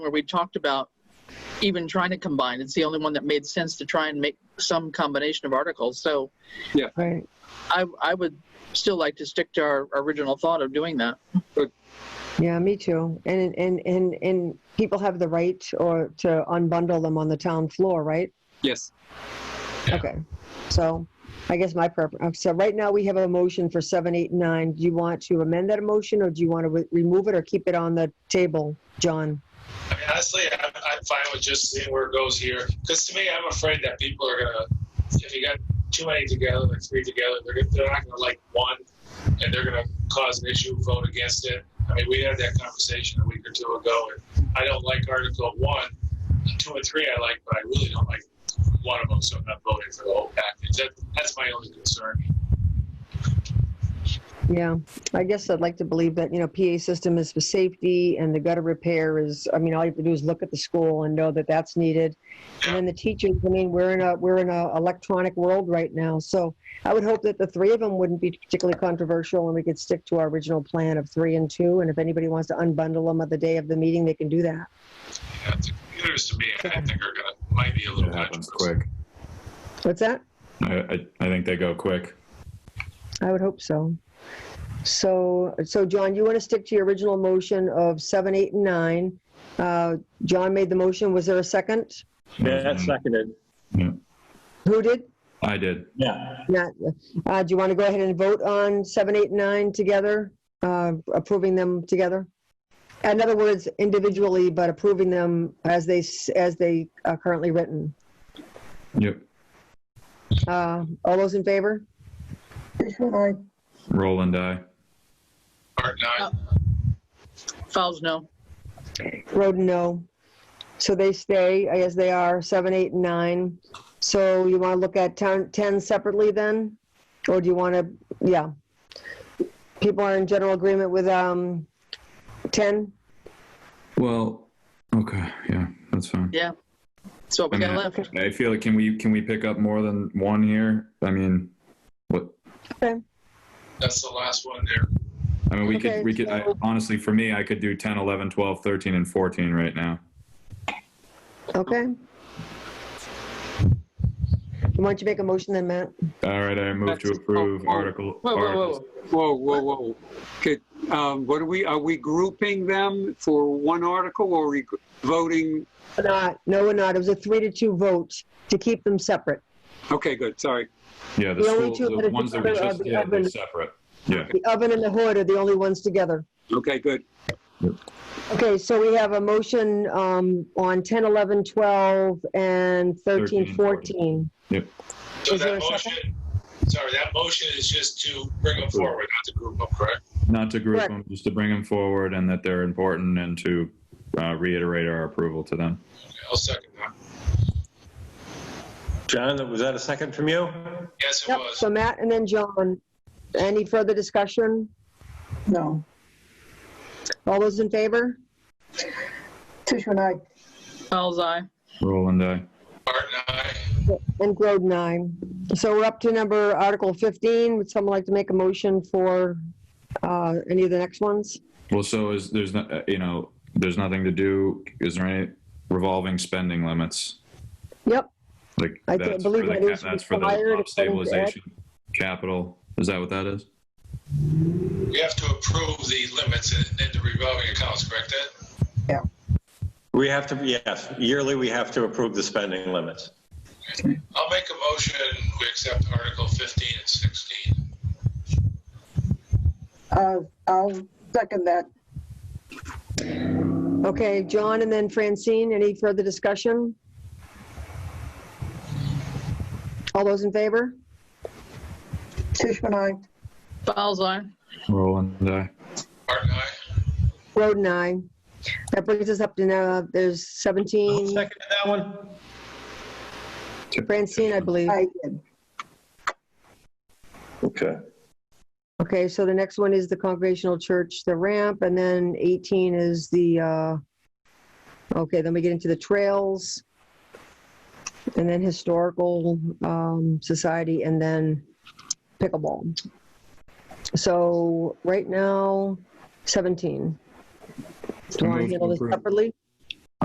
where we talked about even trying to combine. It's the only one that made sense to try and make some combination of articles. So Right. I, I would still like to stick to our original thought of doing that. Yeah, me too. And, and, and, and people have the right or to unbundle them on the town floor, right? Yes. Yeah. Okay. So I guess my preference, so right now we have a motion for seven, eight, nine. Do you want to amend that motion or do you want to re- remove it or keep it on the table, John? I mean, honestly, I'm, I'm fine with just seeing where it goes here. Because to me, I'm afraid that people are gonna, if you got too many together, like three together, they're, gonna- they're not gonna like one, and they're gonna cause an issue, vote against it. I mean, we had that conversation a week or two ago, and I don't like Article One, Two, and Three. I like, but I really don't like one of them, so I'm not voting for the whole package. That, that's my only concern. Yeah, I guess I'd like to believe that, you know, PA system is for safety and the gutter repair is, I mean, all you have to do is look at the school and know that that's needed. And then the teachers, I mean, we're in a, we're in a electronic world right now. So I would hope that the three of them wouldn't be particularly controversial and we could stick to our original plan of three and two. And if anybody wants to unbundle them at the day of the meeting, they can do that. Yeah, the computers, to me, I think are gonna might be a little It happens controversial. quick. What's that? I, I, I think they go quick. I would hope so. So, so John, you want to stick to your original motion of seven, eight, and nine. Uh, John made the motion. Was there a second? Matt seconded. Who did? I did. Yeah. Not, uh, do you want to go ahead and vote on seven, eight, nine together, uh, approving them together? In other words, individually, but approving them as they, s- as they are currently written. Yep. Uh, all those in favor? Roll and die. Part nine. Fouls, no. Roden, no. So they stay as they are, seven, eight, and nine. So you want to look at town, ten separately then? Or do you want to, yeah. People are in general agreement with, um, ten? Well, okay. Yeah, that's fine. Yeah. That's what we got left. I feel like can we can we pick up more than one here? I mean, what? That's the last one there. I mean, we Okay, could we could I, so- honestly for me I could do 10, 11, 12, 13 and 14 right now. Okay. Why don't you make a motion then, Matt? All right, I move to That's- approve oh, oh. article Whoa, whoa, articles. whoa. Whoa, whoa, whoa. Good. Um, what are we, are we grouping them for one article or are we voting? We're Not, no, we're not. It was a three to two vote to keep them separate. Okay, good. Sorry. Yeah, the, The only school, two that the are ones that we separate are just the did, oven- they're separate. Yeah. The oven and the hood are the only ones together. Okay, good. Okay, so we have a motion um, on 10, 11, 12, and 13, 13, 14. So Is there that a second? motion, sorry, that motion is just to bring them Approve. forward, not to group them, correct? Not to group Correct. them, just to bring them forward and that they're important and to uh, reiterate our approval to them. Okay, I'll second that. John, was that a second from you? Yes, it Yep, was. so Matt and then John. Any further discussion? No. All those in favor? Tishman, I, Fouls, aye. Roll and die. Art and I, And Groden, nine. So we're up to number Article 15. Would someone like to make a motion for uh, any of the next ones? Well, so is there's not uh, you know there's nothing to do. Is there any revolving spending limits? Yep, Like I that's believe for the that cap- is that's for required the according top to stabilization capital. Is that what that is? we have to approve the limits in, in the revolving accounts, correct Ed? We have to, yes, yearly we have to approve the spending limits. I'll make a motion, we accept Article fifteen and sixteen. uh, I'll second that. Okay, John and then Francine, any further discussion? All those in favor? Tishman, I, Fouls, aye. Roll and die. Art and I, Groden, aye. That brings us up to now, there's 17, Second to that one? Francine, I believe. I did. Okay. Okay, so the next one is the Congregational Church, the ramp, and then 18 is the, uh, okay, then we get into the trails, and then Historical um, Society, and then pickleball. So right now, 17. Do you want to handle this separately?